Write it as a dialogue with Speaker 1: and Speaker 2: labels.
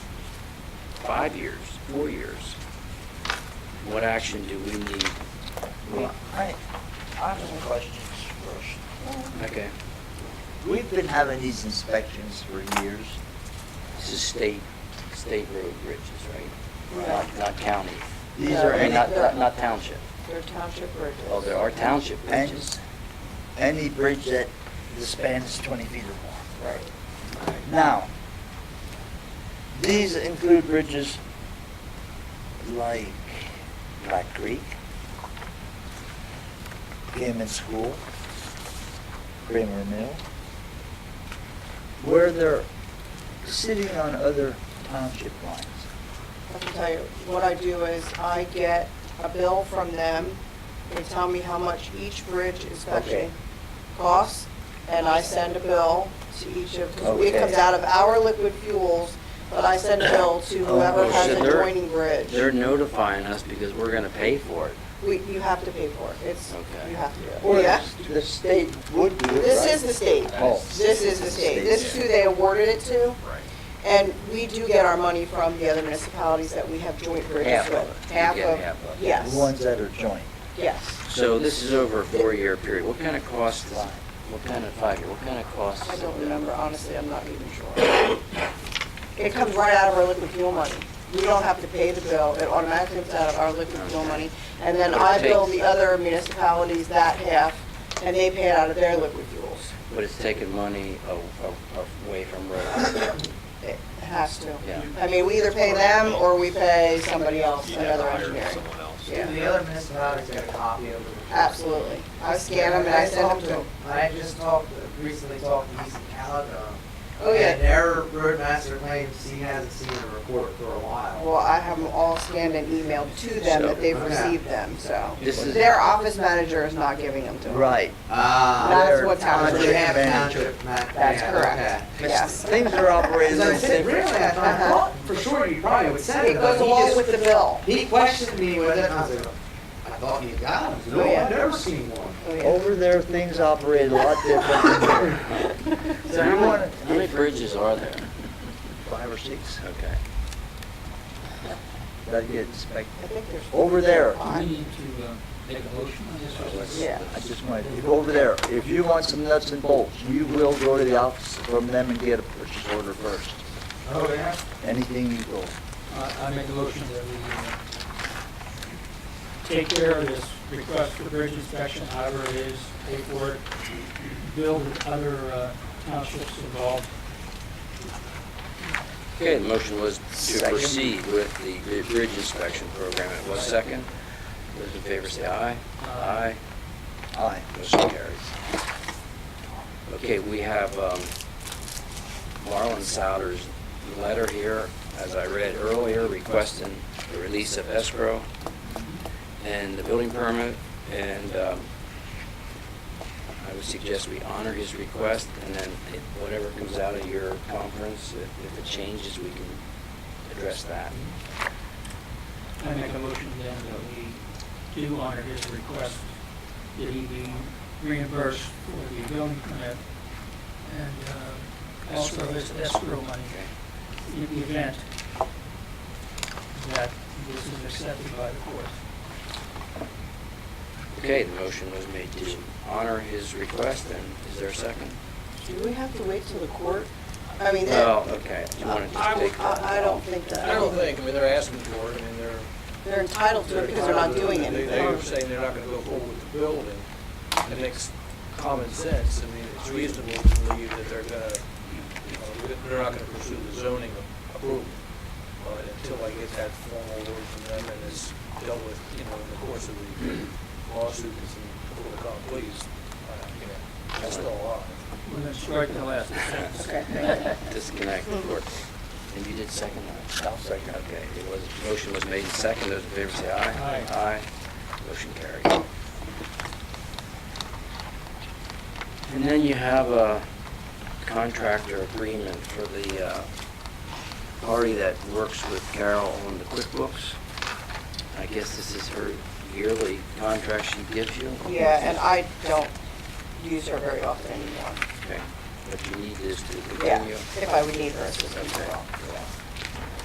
Speaker 1: five years, four years? What action do we need?
Speaker 2: Well, I, I have some questions first.
Speaker 1: Okay,
Speaker 2: We've been having these inspections for years.
Speaker 1: this is state, state road bridges, right? Not- Not county,
Speaker 2: These
Speaker 3: No,
Speaker 2: are
Speaker 1: or
Speaker 3: they're
Speaker 1: not,
Speaker 2: any,
Speaker 1: not not township.
Speaker 3: They're township bridges.
Speaker 1: Oh, there are township bridges.
Speaker 2: and any bridge that the span is twenty feet or
Speaker 1: Right.
Speaker 2: more. Now, these include bridges like Black Creek, Gammon School, Kramer Mill, where they're sitting on other township lines.
Speaker 3: I can tell you, what I do is I get a bill from them. They tell me how much each bridge
Speaker 2: Okay.
Speaker 3: inspection costs, and I send a bill to each of, because it
Speaker 2: Okay.
Speaker 3: comes out of our liquid fuels, but I send a bill to whoever
Speaker 2: Oh,
Speaker 3: has
Speaker 2: so
Speaker 3: an
Speaker 1: they're-
Speaker 3: adjoining bridge.
Speaker 1: They're notifying us because we're gonna pay for it.
Speaker 3: We, you have to pay for it. It's,
Speaker 1: Okay.
Speaker 3: you have to do
Speaker 2: Or
Speaker 3: it. Yeah?
Speaker 2: the state would do it,
Speaker 3: This
Speaker 2: right?
Speaker 3: is the state.
Speaker 2: Oh.
Speaker 3: This is the state. This is who they awarded it to.
Speaker 1: Right.
Speaker 3: And we do get our money from the other municipalities that we have joint bridges
Speaker 1: Half of
Speaker 3: with.
Speaker 1: it. You get half of it.
Speaker 3: Yes.
Speaker 2: The ones that are joint.
Speaker 3: Yes.
Speaker 1: So this is over a four-year period. What kind of cost, is- what kind of five-year, what kind of cost?
Speaker 3: I
Speaker 1: is
Speaker 3: don't
Speaker 1: it?
Speaker 3: remember, honestly, I'm not even sure. It comes right out of our liquid fuel money. We don't have to pay the bill, it automatically comes out of our liquid fuel money. And then I bill the other municipalities that half, and they pay it out of their liquid fuels.
Speaker 1: But it's taking money a- a- away from roads.
Speaker 3: It has to.
Speaker 1: Yeah.
Speaker 3: I mean, we either pay them, or we pay somebody else,
Speaker 4: You'd have
Speaker 3: another
Speaker 4: to hire
Speaker 3: engineer.
Speaker 4: someone else.
Speaker 3: Yeah.
Speaker 5: Do the other municipalities get a copy of them?
Speaker 3: Absolutely. I scan them and I send them to them.
Speaker 5: I just talked, recently talked to East Caladown.
Speaker 3: Oh, yeah.
Speaker 5: And their roadmaster claims he hasn't seen a report for a while.
Speaker 3: Well, I have them all scanned and emailed to them that they've
Speaker 5: So-
Speaker 3: received them, so.
Speaker 1: This is-
Speaker 3: Their office manager is not giving them to them.
Speaker 2: Right.
Speaker 5: Ah,
Speaker 3: That's what
Speaker 2: Township
Speaker 5: They have
Speaker 2: manager.
Speaker 5: township ma-
Speaker 3: That's
Speaker 5: yeah,
Speaker 3: correct,
Speaker 5: okay.
Speaker 3: yes.
Speaker 2: Things are operated
Speaker 5: Because I said, really,
Speaker 2: different.
Speaker 5: I thought, I thought for sure you probably would send
Speaker 3: uh-huh. It
Speaker 5: it, but
Speaker 3: goes
Speaker 5: he
Speaker 3: along
Speaker 5: just-
Speaker 3: with the bill.
Speaker 5: He questioned me with it, and I was like, I thought you got them. No,
Speaker 3: Oh, yeah.
Speaker 5: I've never seen one.
Speaker 3: Oh,
Speaker 2: Over there, things operate a lot different than here.
Speaker 1: So how many, how many bridges are there?
Speaker 2: Five or six
Speaker 1: Okay.
Speaker 2: that get inspected.
Speaker 3: I think there's.
Speaker 2: Over there.
Speaker 6: We need to uh, make a motion on this. or what?
Speaker 3: Yeah.
Speaker 2: Oh, I just want, if over there, if you want some nuts and bolts, you will go to the office from them and get a purchase order first.
Speaker 5: Oh, yeah?
Speaker 2: Anything you go.
Speaker 6: I I make a motion that we uh, take care of this request for bridge inspection, however it is, pay for it, bill the other uh, townships involved.
Speaker 1: Okay, the motion was to
Speaker 2: Second.
Speaker 1: proceed with the bri- bridge inspection program. It was second. Those in favor say aye. Aye.
Speaker 6: Aye.
Speaker 2: Aye.
Speaker 1: Motion carries. Okay, we have um, Marlon Souter's letter here, as I read earlier, requesting the release of escrow and the building permit, and um, I would suggest we honor his request, and then if- whatever comes out of your conference, if if it changes, we can address that.
Speaker 6: I make a motion then that we do honor his request that he be reimbursed for the building permit and uh, also his escrow money in the event that this is accepted by the court.
Speaker 1: Okay, the motion was made to honor his request, and is there a second?
Speaker 3: Do we have to wait till the court? I mean, that-
Speaker 1: Oh, okay, you want to just take that?
Speaker 3: I, I don't think that.
Speaker 7: I don't think, I mean, they're asking for it, I mean, they're.
Speaker 3: They're entitled to it because they're not doing
Speaker 7: They-
Speaker 3: anything.
Speaker 7: They're saying they're not gonna go forward with the building. It makes common sense, I mean, it's reasonable to believe that they're gonna, you know, they're not gonna pursue the zoning approval. But until I get that formal word from them and it's dealt with, you know, in the course of the lawsuit, it's in court of law, please, uh, you know, that's still on.
Speaker 6: We're going to strike the last sentence.
Speaker 3: Okay, thank you.
Speaker 1: disconnect the court. And you did second that? I'll second. Okay, it was, motion was made and second, those in favor say aye.
Speaker 6: Aye.
Speaker 1: Motion carried. And then you have a contractor agreement for the uh, party that works with Carol on the QuickBooks. I guess this is her yearly contract she gives you?
Speaker 3: Yeah, and I don't use her very often anymore.
Speaker 1: Okay, but you need this to
Speaker 3: Yeah,
Speaker 1: continue?
Speaker 3: if I would need her assistance at all. yeah.